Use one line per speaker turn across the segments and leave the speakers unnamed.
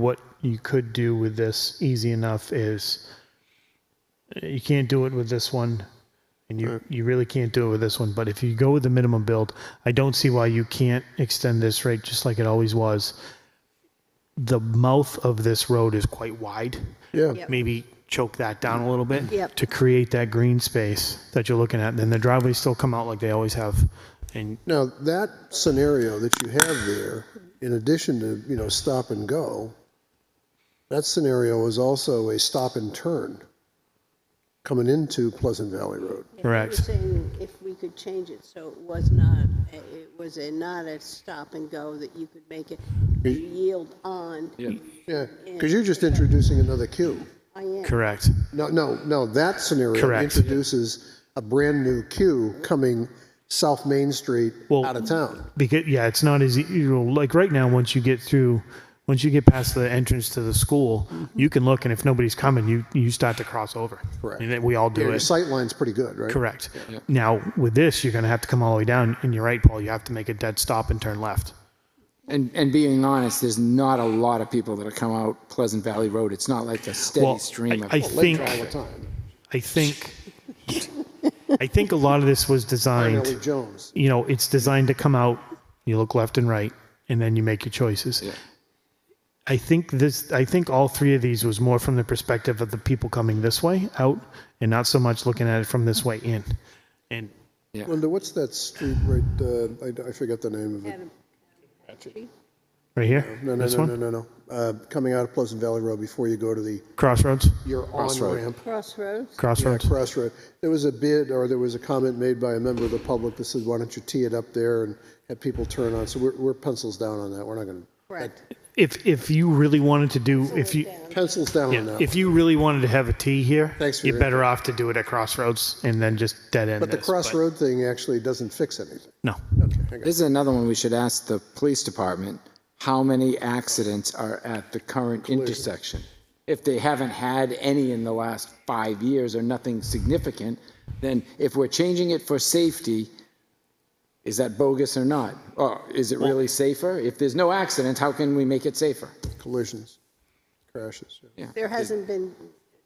what you could do with this easy enough is you can't do it with this one and you, you really can't do it with this one but if you go with the minimum build i don't see why you can't extend this rate just like it always was the mouth of this road is quite wide
Yeah.
Yep.
maybe choke that down a little bit
Yep.
to create that green space that you're looking at and then the driveways still come out like they always have and
Now, that scenario that you have there, in addition to, you know, stop and go, that scenario is also a stop and turn coming into Pleasant Valley Road.
Correct.
We're saying if we could change it so it was not, it was a, not a stop and go that you could make it you yield on.
Yeah, because you're just introducing another queue.
I am.
correct
No, no, no, that scenario
Correct.
introduces a brand-new queue coming South Main Street
Well-
out of town.
because yeah, it's not as e- you know, like right now. Once you get through, once you get past the entrance to the school, you can look, and if nobody's coming, you you start to cross over.
Correct.
And then we all do
Your
it.
sight line's pretty good, right?
Correct. Now with this, you're going to have to come all the way down, and you're right, Paul. You have to make a dead stop and turn left.
And, and being honest, there's not a lot of people that'll come out Pleasant Valley Road. It's not like a steady
Well,
stream of.
I, I think
All the time.
I think I think a lot of this was
Ellie
designed.
Jones.
You know, it's designed to come out. You look left and right, and then you make your choices. I think this. I think all three of these was more from the perspective of the people coming this way out, and not so much looking at it from this way in. And
Linda, what's that street right, uh, I, I forget the name of it.
right here,
No, no,
this
no,
one,
no, no, no. Uh, coming out of Pleasant Valley Road before you go to the,
crossroads,
your on-ramp.
Crossroads,
crossroads.
Crossroad. There was a bid, or there was a comment made by a member of the public that said, why don't you tee it up there and have people turn on? So we're, we're pencils down on that. We're not going
correct.
if if you really wanted to do, if you
to, pencils down on
yeah,
that.
if you really wanted to have a T here,
Thanks for
you're
your
better off to do it at crossroads and then just dead end.
But the
this,
crossroad thing actually doesn't fix anything.
no,
This is another one we should ask the police department, how many accidents are at the current intersection? If they haven't had any in the last five years or nothing significant, then if we're changing it for safety, is that bogus or not? Or is it really safer? If there's no accidents, how can we make it safer?
Collisions, crashes. yeah.
There hasn't been,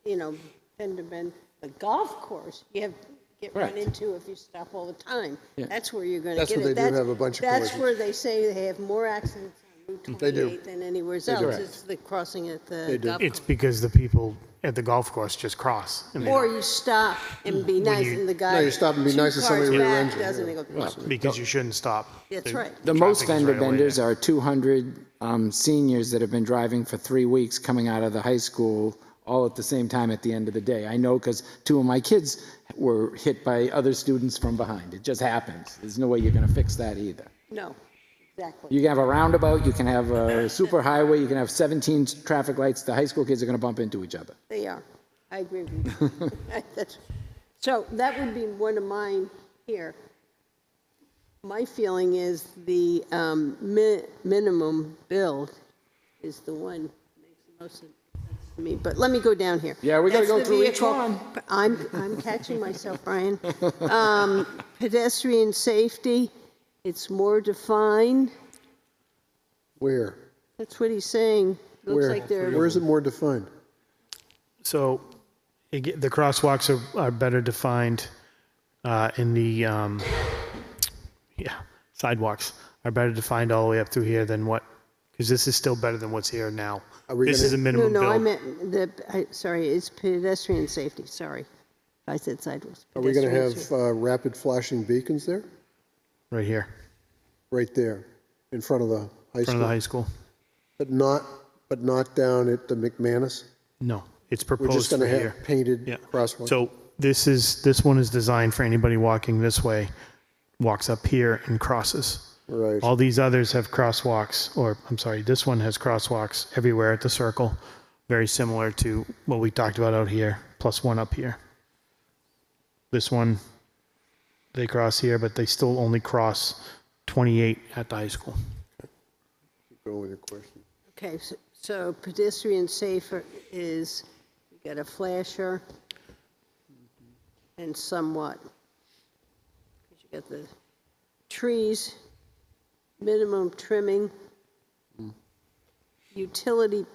you know, been to been, the golf course, you have, get run
Correct.
into if you stop all the time. That's where you're gonna get
That's
it.
where they do have a bunch of
That's
collisions.
where they say they have more accidents on Route
They do.
28 than anywhere else. It's the crossing at the
do.
golf course.
it's because the people at the golf course just cross. And they
Or
don't-
you stop and be nice and the guy.
No, you stop and be
two
nice and somebody
cars
rear
back
ends you,
Doesn't
yeah.
it go?
because you shouldn't stop.
That's
The
right.
The most
traffic is
fender
right away
benders
there.
are 200 um, seniors that have been driving for three weeks coming out of the high school all at the same time at the end of the day. I know because two of my kids were hit by other students from behind. It just happens. There's no way you're going to fix that either.
No, exactly.
You can have a roundabout, you can have a superhighway, you can have 17 traffic lights. The high school kids are going to bump into each other.
They are. I agree with you. That's- So that would be one of mine here. My feeling is the um, mi- minimum build is the one that makes the most sense to me. But let me go down here.
Yeah, we gotta
That's
go
the
through each
vehicle-
one.
I'm, I'm catching myself, Brian. Um, Pedestrian safety, it's more defined.
Where?
That's what he's saying. Looks
Where?
like they're,
Where is it more defined?
So ag- the crosswalks are, are better defined uh, in the, um, yeah, sidewalks are better defined all the way up through here than what, because this is still better than what's here now.
Are we
This
gonna-
is a
no,
minimum
no, I
build.
meant the, I- sorry, it's pedestrian safety, sorry. I said sidewalks.
Are we going to
Pedestrian
have
safety.
uh, rapid flashing beacons there?
Right here,
Right there, in front of the high
in front of the
school?
high school.
But not, but not down at the McManus?
No, it's
We're just
proposed
going
right
to
here.
have painted
Yeah.
crosswalks?
So this is, this one is designed for anybody walking this way, walks up here and crosses.
Right.
All these others have crosswalks, or I'm sorry, this one has crosswalks everywhere at the circle, very similar to what we talked about out here, plus one up here. This one, they cross here, but they still only cross 28 at the high school.
Go with your question.
Okay, so- so pedestrian safer is, you got a flasher and somewhat. 'Cause You got the
Mm.
trees, minimum trimming, utility